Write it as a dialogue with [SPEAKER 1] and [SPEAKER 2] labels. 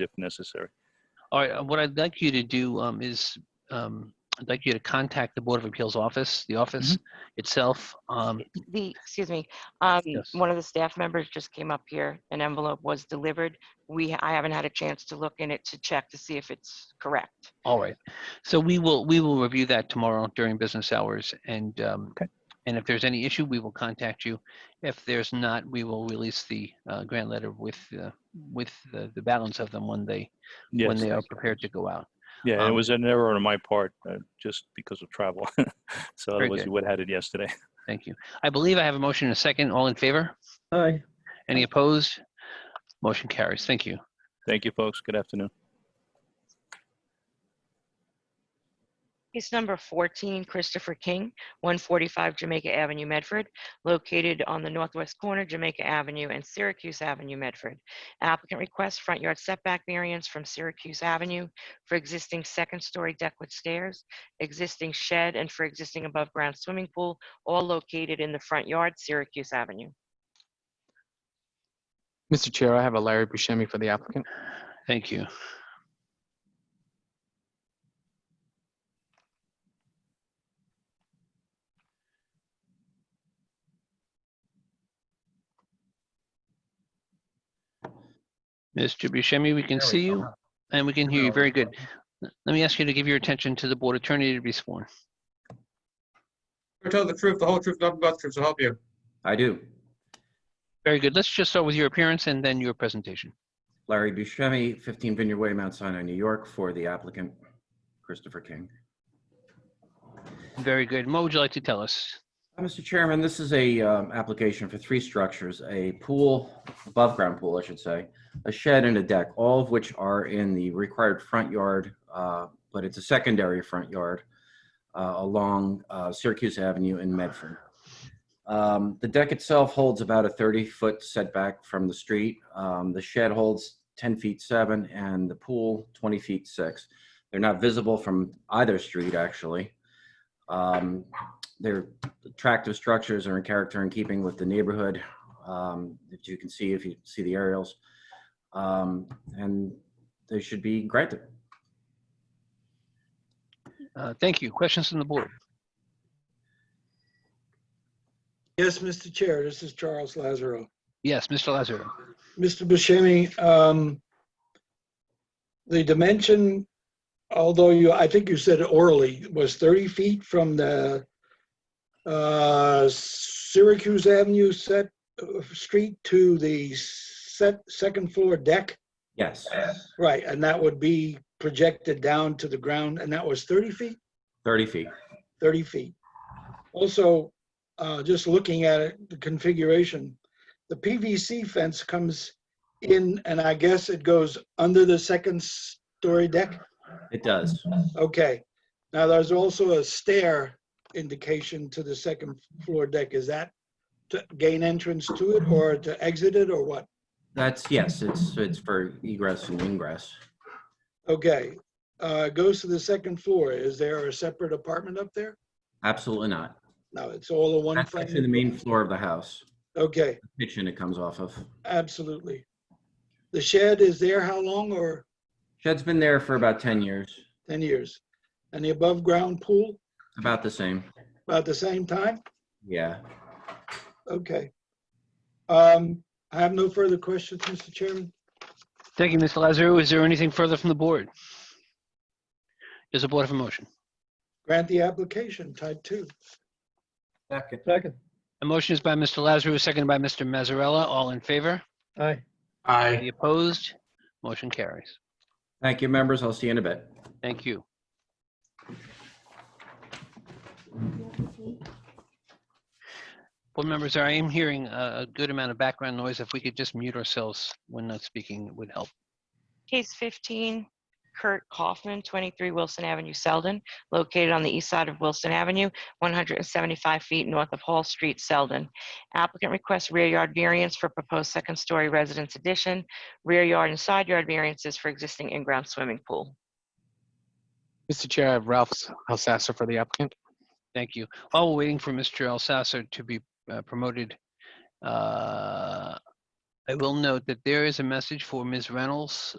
[SPEAKER 1] if necessary.
[SPEAKER 2] All right, uh, what I'd like you to do um, is, um, I'd like you to contact the Board of Appeals office, the office
[SPEAKER 1] Mm-hmm.
[SPEAKER 2] itself. Um,
[SPEAKER 3] The, excuse me, um,
[SPEAKER 2] Yes.
[SPEAKER 3] one of the staff members just came up here. An envelope was delivered. We, I haven't had a chance to look in it to check to see if it's correct.
[SPEAKER 2] All right, so we will, we will review that tomorrow during business hours, and, um,
[SPEAKER 1] Okay.
[SPEAKER 2] and if there's any issue, we will contact you. If there's not, we will release the uh, grant letter with, uh, with the the balance of them when they, when
[SPEAKER 1] Yes.
[SPEAKER 2] they are prepared to go out.
[SPEAKER 1] Yeah, it
[SPEAKER 2] um,
[SPEAKER 1] was an error on my part, uh, just because of travel. So
[SPEAKER 2] Very
[SPEAKER 1] otherwise
[SPEAKER 2] good.
[SPEAKER 1] you would have had it yesterday.
[SPEAKER 2] Thank you. I believe I have a motion and a second. All in favor?
[SPEAKER 4] Aye.
[SPEAKER 2] Any opposed? Motion carries. Thank you.
[SPEAKER 1] Thank you, folks. Good afternoon.
[SPEAKER 3] Case number 14, Christopher King, 145 Jamaica Avenue, Medford, located on the northwest corner Jamaica Avenue and Syracuse Avenue, Medford. Applicant requests front yard setback variance from Syracuse Avenue for existing second-story deck with stairs, existing shed, and for existing above-ground swimming pool, all located in the front yard, Syracuse Avenue.
[SPEAKER 5] Mr. Chair, I have a Larry Buscemi for the applicant.
[SPEAKER 2] Thank you. Mr. Buscemi, we
[SPEAKER 4] There
[SPEAKER 2] can
[SPEAKER 4] we
[SPEAKER 2] see
[SPEAKER 4] go.
[SPEAKER 2] you and we can hear you. Very good. Let me ask you to give your attention to the board attorney to be sworn.
[SPEAKER 6] Tell the truth, the whole truth, nothing but the truth, so help you.
[SPEAKER 7] I do.
[SPEAKER 2] Very good. Let's just start with your appearance and then your presentation.
[SPEAKER 7] Larry Buscemi, 15 Vineyard Way, Mount Sinai, New York, for the applicant, Christopher King.
[SPEAKER 2] Very good. And What would you like to tell us?
[SPEAKER 7] Uh, Mr. Chairman, this is a um, application for three structures, a pool, above-ground pool, I should say, a shed and a deck, all of which are in the required front yard, uh, but it's a secondary front yard uh, along uh, Syracuse Avenue in Medford. Um, The deck itself holds about a 30-foot setback from the street. Um, The shed holds 10 feet 7 and the pool 20 feet 6. They're not visible from either street, actually. Um, They're attractive structures are in character and keeping with the neighborhood um, that you can see if you see the aerials. Um, and they should be granted.
[SPEAKER 2] Uh, Thank you. Questions from the board?
[SPEAKER 8] Yes, Mr. Chair, this is Charles Lazaro.
[SPEAKER 2] Yes, Mr. Lazaro.
[SPEAKER 8] Mr. Buscemi, um, the dimension, although you, I think you said orally, was 30 feet from the uh, Syracuse Avenue set, uh, street to the set, second floor deck?
[SPEAKER 7] Yes,
[SPEAKER 8] Right, and that would be projected down to the ground, and that was 30 feet?
[SPEAKER 7] 30 feet.
[SPEAKER 8] 30 feet. Also, uh, just looking at it, the configuration, the PVC fence comes in and I guess it goes under the second story deck?
[SPEAKER 7] It does.
[SPEAKER 8] Okay. Now, there's also a stair indication to the second floor deck. Is that to gain entrance to it or to exit it or what?
[SPEAKER 7] That's yes. It's it's for egress and ingress.
[SPEAKER 8] Okay. Uh, it Goes to the second floor. Is there a separate apartment up there?
[SPEAKER 7] Absolutely not.
[SPEAKER 8] No, it's all a one
[SPEAKER 7] That's actually the
[SPEAKER 8] family.
[SPEAKER 7] main floor of the house.
[SPEAKER 8] Okay,
[SPEAKER 7] Kitchen it comes off of.
[SPEAKER 8] absolutely. The shed is there how long or?
[SPEAKER 7] Shed's been there for about 10 years.
[SPEAKER 8] 10 years. And the above-ground pool,
[SPEAKER 7] About the same.
[SPEAKER 8] about the same time?
[SPEAKER 7] Yeah.
[SPEAKER 8] Okay. Um, I have no further questions, Mr. Chairman.
[SPEAKER 2] Thank you, Mr. Lazaro. Is there anything further from the board? Is the board of a motion?
[SPEAKER 8] Grant the application, type 2.
[SPEAKER 4] Second. Second.
[SPEAKER 2] A motion is by Mr. Lazaro, seconded by Mr. Mazzarella. All in favor?
[SPEAKER 4] Aye.
[SPEAKER 6] Aye.
[SPEAKER 2] Any opposed? Motion carries.
[SPEAKER 7] Thank you, members. I'll see you in a bit.
[SPEAKER 2] Thank you. Board members, I am hearing a a good amount of background noise. If we could just mute ourselves when not speaking, it would help.
[SPEAKER 3] Case 15, Kurt Kaufman, 23 Wilson Avenue, Selden, located on the east side of Wilson Avenue, 175 feet north of Hall Street, Selden. Applicant requests rear yard variance for proposed second-story residence addition, rear yard and side yard variances for existing in-ground swimming pool.
[SPEAKER 5] Mr. Chair, I have Ralph Alsasser for the applicant.
[SPEAKER 2] Thank you. While we're waiting for Mr. Alsasser to be uh, promoted, uh, I will note that there is a message for Ms. Reynolds